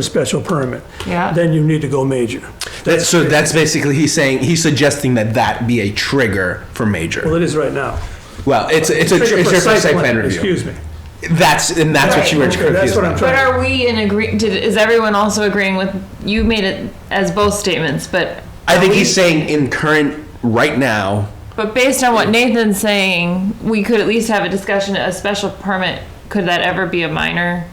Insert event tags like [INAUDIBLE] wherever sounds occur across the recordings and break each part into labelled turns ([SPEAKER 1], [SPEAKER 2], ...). [SPEAKER 1] a special permit.
[SPEAKER 2] Yeah.
[SPEAKER 1] Then you need to go major.
[SPEAKER 3] That, so that's basically he's saying he's suggesting that that be a trigger for
[SPEAKER 1] Well,
[SPEAKER 3] major.
[SPEAKER 1] it is right now.
[SPEAKER 3] Well, it's it's a trigger it's a site plan review.
[SPEAKER 1] Excuse me.
[SPEAKER 3] That's and that's what you were
[SPEAKER 2] Right.
[SPEAKER 3] confused
[SPEAKER 1] That's what I'm
[SPEAKER 3] about.
[SPEAKER 1] trying-
[SPEAKER 2] But are we in agree, did, is everyone also agreeing with, you made it as both statements, but.
[SPEAKER 3] I think
[SPEAKER 2] are
[SPEAKER 3] he's
[SPEAKER 2] we-
[SPEAKER 3] saying in current right now.
[SPEAKER 2] But based on what Nathan's saying, we could at least have a discussion, a special permit, could that ever be a minor?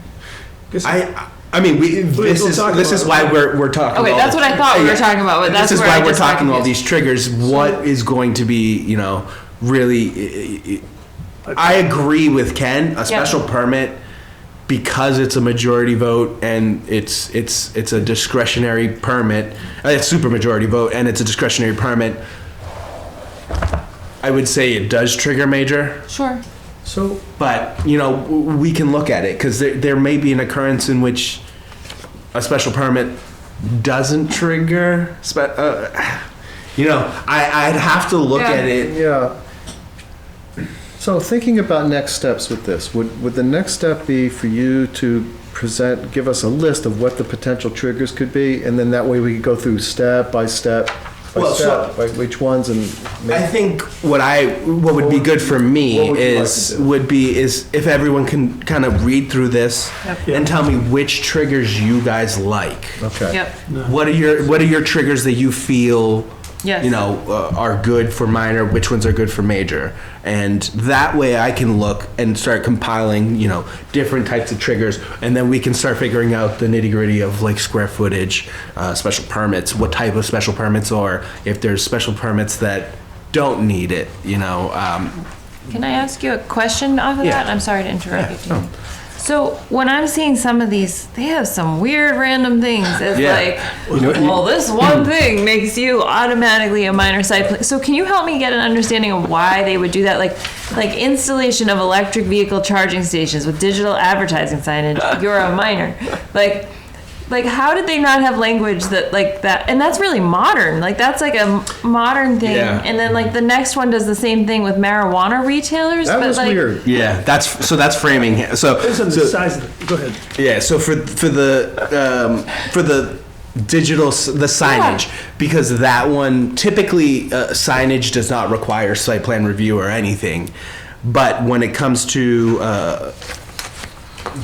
[SPEAKER 3] I I mean we this
[SPEAKER 1] we'll
[SPEAKER 3] is
[SPEAKER 1] talk
[SPEAKER 3] this
[SPEAKER 1] about
[SPEAKER 3] is
[SPEAKER 1] it.
[SPEAKER 3] why we're we're talking.
[SPEAKER 2] Okay,
[SPEAKER 3] all
[SPEAKER 2] that's
[SPEAKER 3] the-
[SPEAKER 2] what I thought we were
[SPEAKER 3] Yeah.
[SPEAKER 2] talking about, but that's
[SPEAKER 3] this is
[SPEAKER 2] where
[SPEAKER 3] why
[SPEAKER 2] I
[SPEAKER 3] we're
[SPEAKER 2] just got
[SPEAKER 3] talking all
[SPEAKER 2] confused.
[SPEAKER 3] these triggers. What is going to be you know really? I- I I agree with Ken. A special permit because it's a majority vote and it's it's it's a discretionary permit. uh, It's super majority vote and it's a discretionary permit. I would say it does trigger major.
[SPEAKER 2] Sure.
[SPEAKER 1] So,
[SPEAKER 3] But, you know, w- we can look at it, because there, there may be an occurrence in which a special permit doesn't trigger, spe- uh, [SIGHS] you know, I, I'd have to look
[SPEAKER 2] Yeah.
[SPEAKER 3] at it.
[SPEAKER 4] Yeah. So thinking about next steps with this, would, would the next step be for you to present, give us a list of what the potential triggers could be? And then that way we could go through step by step, by
[SPEAKER 3] Well, so-
[SPEAKER 4] step, by which ones and.
[SPEAKER 3] I
[SPEAKER 4] make-
[SPEAKER 3] think what I, what would be good for
[SPEAKER 4] What
[SPEAKER 3] me
[SPEAKER 4] would you like
[SPEAKER 3] is,
[SPEAKER 4] to do?
[SPEAKER 3] would be, is if everyone can kind of read through this
[SPEAKER 2] Yep.
[SPEAKER 3] and tell me which triggers you guys like.
[SPEAKER 4] Okay.
[SPEAKER 2] Yep.
[SPEAKER 3] What are your, what are your triggers that you feel
[SPEAKER 2] Yes.
[SPEAKER 3] you know, uh, are good for minor, which ones are good for major. And that way I can look and start compiling, you know, different types of triggers. And then we can start figuring out the nitty gritty of like square footage, uh, special permits, what type of special permits are, if there's special permits that don't need it, you know. Um,
[SPEAKER 2] Can I ask you a question off of
[SPEAKER 3] Yeah.
[SPEAKER 2] that? I'm sorry to interrupt you. Dean. So when I'm seeing some of these, they have some weird random things. It's
[SPEAKER 3] Yeah.
[SPEAKER 2] like, well,
[SPEAKER 4] [CLEARS THROAT]
[SPEAKER 2] this one thing makes you automatically a minor site plan. So can you help me get an understanding of why they would do that? Like, like installation of electric vehicle charging stations with digital advertising signage. You're a minor. Like, like how did they not have language that like that? And that's really modern. Like that's like a modern thing.
[SPEAKER 3] Yeah.
[SPEAKER 2] And then like the next one does the same thing with marijuana retailers.
[SPEAKER 4] That
[SPEAKER 2] but
[SPEAKER 4] was
[SPEAKER 2] like,
[SPEAKER 4] weird.
[SPEAKER 3] yeah, that's so that's framing. So,
[SPEAKER 1] this is
[SPEAKER 3] so-
[SPEAKER 1] the size of, the- go ahead.
[SPEAKER 3] Yeah, so for for the um, for the digital s- the signage
[SPEAKER 2] Yeah.
[SPEAKER 3] because that one typically uh, signage does not require site plan review or anything, but when it comes to uh,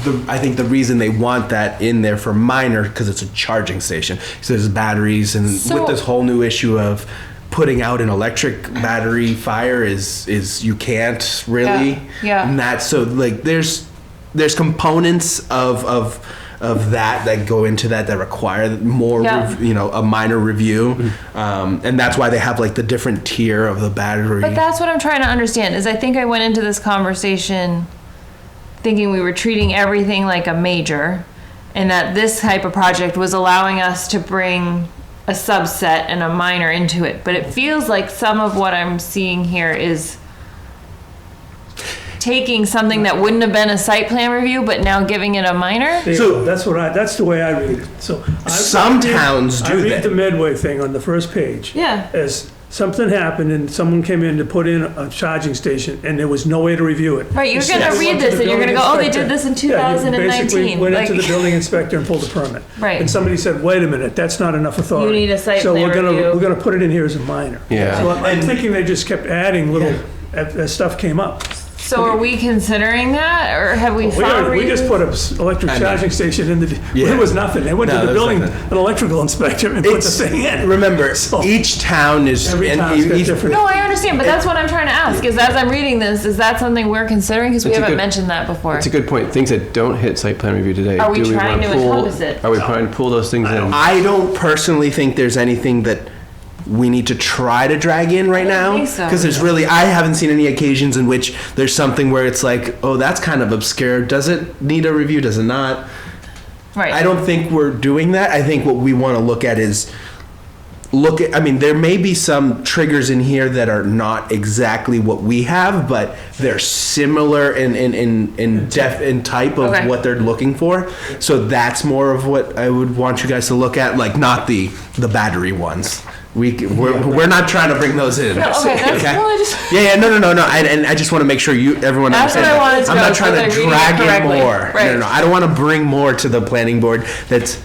[SPEAKER 3] the, I think the reason they want that in there for minor because it's a charging station. So there's batteries, and
[SPEAKER 2] So-
[SPEAKER 3] with this whole new issue of putting out an electric battery fire is is you can't really.
[SPEAKER 2] yeah.
[SPEAKER 3] And that so like there's there's components of of of that that go into that that require more
[SPEAKER 2] Yeah.
[SPEAKER 3] rev- you know a minor review um, and that's why they have like the different tier of the battery
[SPEAKER 2] But that's what I'm trying to understand is I think I went into this conversation thinking we were treating everything like a major and that this type of project was allowing us to bring a subset and a minor into it. But it feels like some of what I'm seeing here is taking something that wouldn't have been a site plan review but now giving it a minor.
[SPEAKER 1] There you
[SPEAKER 3] So-
[SPEAKER 1] go. That's what I, that's the way I read it. So. I-
[SPEAKER 3] Some towns do
[SPEAKER 1] I
[SPEAKER 3] that.
[SPEAKER 1] read the Medway thing on the first page.
[SPEAKER 2] Yeah.
[SPEAKER 1] As something happened and someone came in to put in a charging station and there was no way to review it.
[SPEAKER 2] Right, you're
[SPEAKER 1] You
[SPEAKER 2] gonna
[SPEAKER 1] just
[SPEAKER 2] read
[SPEAKER 1] went to
[SPEAKER 2] this
[SPEAKER 1] the
[SPEAKER 2] and you're gonna
[SPEAKER 1] building
[SPEAKER 2] go, "Oh, they
[SPEAKER 1] inspector."
[SPEAKER 2] did this in
[SPEAKER 1] Yeah, you basically
[SPEAKER 2] 2019,
[SPEAKER 1] Went into
[SPEAKER 2] like-
[SPEAKER 1] the building [LAUGHS] inspector and pulled the permit.
[SPEAKER 2] Right.
[SPEAKER 1] And somebody said, wait a minute, that's not enough authority.
[SPEAKER 2] You need a site
[SPEAKER 1] So
[SPEAKER 2] plan
[SPEAKER 1] we're gonna,
[SPEAKER 2] review.
[SPEAKER 1] we're gonna put it in here as a minor.
[SPEAKER 3] Yeah.
[SPEAKER 1] So I'm- I'm thinking they just kept adding little, as, as stuff came up.
[SPEAKER 2] So are we considering that or have we
[SPEAKER 1] We
[SPEAKER 2] found
[SPEAKER 1] already, we just
[SPEAKER 2] reasons?
[SPEAKER 1] put an electric
[SPEAKER 3] I know.
[SPEAKER 1] charging station in the,
[SPEAKER 3] Yeah.
[SPEAKER 1] there was nothing. They went
[SPEAKER 3] No,
[SPEAKER 1] to the
[SPEAKER 3] there was
[SPEAKER 1] building,
[SPEAKER 3] nothing.
[SPEAKER 1] an electrical inspector and put the
[SPEAKER 3] It's-
[SPEAKER 1] thing in.
[SPEAKER 3] remember
[SPEAKER 1] So-
[SPEAKER 3] each town is
[SPEAKER 1] Every
[SPEAKER 3] and
[SPEAKER 1] town's got
[SPEAKER 3] each-
[SPEAKER 1] different-
[SPEAKER 2] No, I understand, but that's what I'm trying to ask, is as I'm reading this, is that something we're considering? Because we
[SPEAKER 5] It's a
[SPEAKER 2] haven't
[SPEAKER 5] good-
[SPEAKER 2] mentioned that before.
[SPEAKER 5] It's a good point. Things that don't hit site plan review today.
[SPEAKER 2] Are we
[SPEAKER 5] do
[SPEAKER 2] trying
[SPEAKER 5] wanna
[SPEAKER 2] to
[SPEAKER 5] pull-
[SPEAKER 2] encompass it?
[SPEAKER 5] Are we trying to pull those things in?
[SPEAKER 3] I don't personally think there's anything that we need to try to drag in
[SPEAKER 2] don't
[SPEAKER 3] right now
[SPEAKER 2] think so.
[SPEAKER 3] because there's really I haven't seen any occasions in which there's something where it's like, oh, that's kind of obscure. Does it need a review? Does it not?
[SPEAKER 2] Right.
[SPEAKER 3] I don't think we're doing that. I think what we want to look at is look at I mean there may be some triggers in here that are not exactly what we have, but they're similar in in in, in def in type of
[SPEAKER 2] Mm-hmm. Okay.
[SPEAKER 3] what they're looking for. So that's more of what I would want you guys to look at, like not the the battery ones. We, c- we're, we're not trying to bring those in.
[SPEAKER 2] No, okay, that's- well, I just-
[SPEAKER 3] Yeah, yeah, no, no, no, no. And, and I just want to make sure you, everyone
[SPEAKER 2] That's what
[SPEAKER 3] understands.
[SPEAKER 2] I wanted to
[SPEAKER 3] am
[SPEAKER 2] know,
[SPEAKER 3] not
[SPEAKER 2] so
[SPEAKER 3] trying
[SPEAKER 2] that I
[SPEAKER 3] to
[SPEAKER 2] read it
[SPEAKER 3] drag in
[SPEAKER 2] correctly.
[SPEAKER 3] more. No,
[SPEAKER 2] Right.
[SPEAKER 3] no, no. I don't want to bring more to the planning board that's